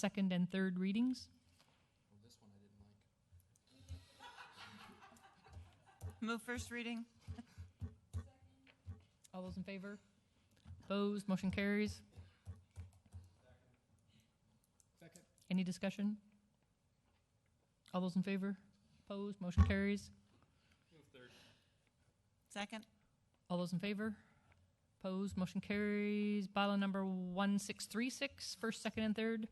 second and third readings. Move first reading. All those in favor? Opposed? Motion carries. Second. Any discussion? All those in favor? Opposed? Motion carries. Second. All those in favor? Opposed? Motion carries. Bylaw number 1636, first, second, and third.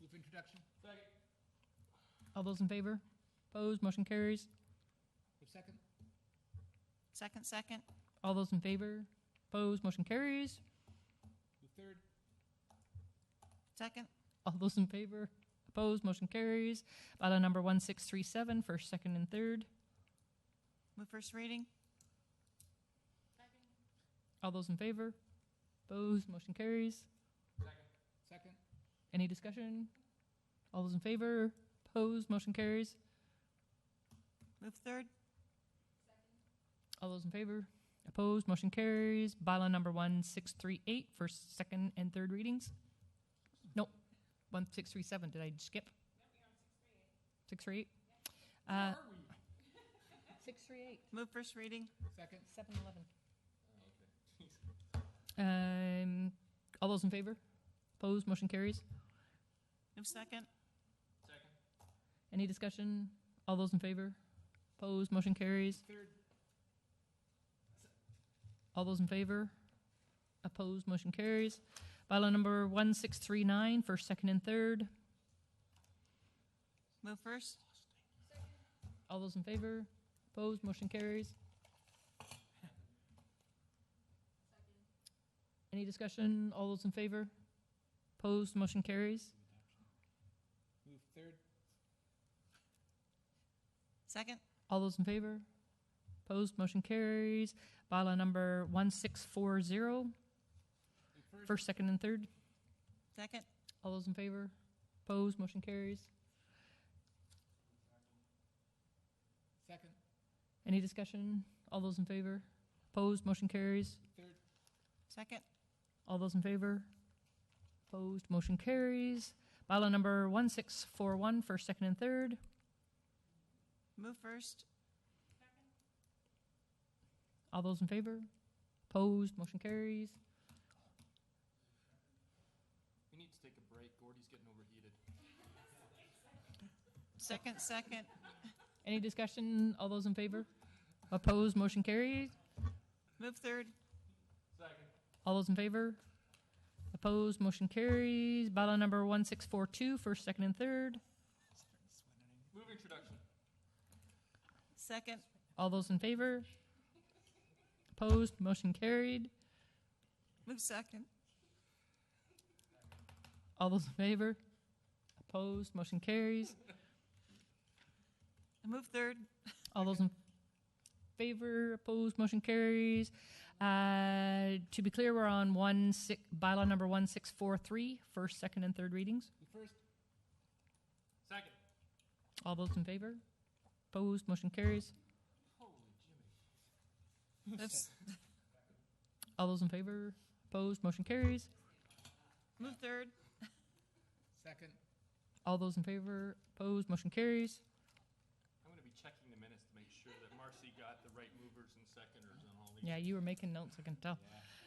Move introduction. Second. All those in favor? Opposed? Motion carries. Move second. Second, second. All those in favor? Opposed? Motion carries. Move third. Second. All those in favor? Opposed? Motion carries. Bylaw number 1637, first, second, and third. Move first reading. All those in favor? Opposed? Motion carries. Second. Any discussion? All those in favor? Opposed? Motion carries. Move third. All those in favor? Opposed? Motion carries. Bylaw number 1638, first, second, and third readings. Nope. 1637, did I skip? 638? Uh, Are we? 638. Move first reading. Second. 7-Eleven. Um, all those in favor? Opposed? Motion carries. Move second. Second. Any discussion? All those in favor? Opposed? Motion carries. Third. All those in favor? Opposed? Motion carries. Bylaw number 1639, first, second, and third. Move first. All those in favor? Opposed? Motion carries. Any discussion? All those in favor? Opposed? Motion carries. Move third. Second. All those in favor? Opposed? Motion carries. Bylaw number 1640, Move first. first, second, and third. Second. All those in favor? Opposed? Motion carries. Second. Any discussion? All those in favor? Opposed? Motion carries. Third. Second. All those in favor? Opposed? Motion carries. Bylaw number 1641, first, second, and third. Move first. All those in favor? Opposed? Motion carries. We need to take a break. Gordy's getting overheated. Second, second. Any discussion? All those in favor? Opposed? Motion carries. Move third. Second. All those in favor? Opposed? Motion carries. Bylaw number 1642, first, second, and third. Move introduction. Second. All those in favor? Opposed? Motion carried. Move second. All those in favor? Opposed? Motion carries. Move third. All those in favor? Opposed? Motion carries. Uh, to be clear, we're on one six, bylaw number 1643, first, second, and third readings. Move first. Second. All those in favor? Opposed? Motion carries. Holy Jimmy. Move s- All those in favor? Opposed? Motion carries. Move third. Second. All those in favor? Opposed? Motion carries. I'm going to be checking the minutes to make sure that Marcy got the right movers and seconders on all these. Yeah, you were making notes, I can tell.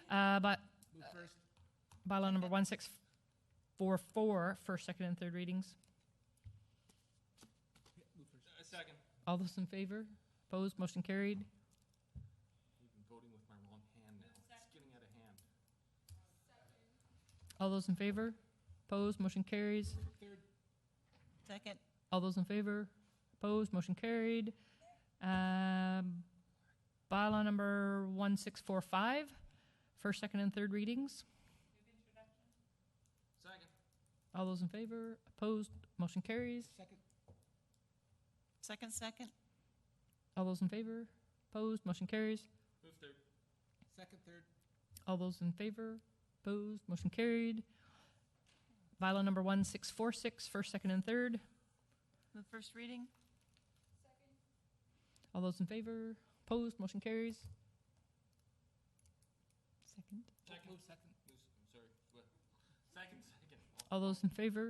Uh, but Move first. bylaw number 1644, first, second, and third readings. Yeah, Move first. Uh, second. All those in favor? Opposed? Motion carried. I've been voting with my wrong hand now. It's getting out of hand. All those in favor? Opposed? Motion carries. Third. Second. All those in favor? Opposed? Motion carried. Um, bylaw number 1645, first, second, and third readings. Second. All those in favor? Opposed? Motion carries. Second. Second, second. All those in favor? Opposed? Motion carries. Move third. Second. Third. All those in favor? Opposed? Motion carried. Bylaw number 1646, first, second, and third. Move first reading. All those in favor? Opposed? Motion carries. Second. Move second. Move, s- I'm sorry. What? Second, second. All All those in favor?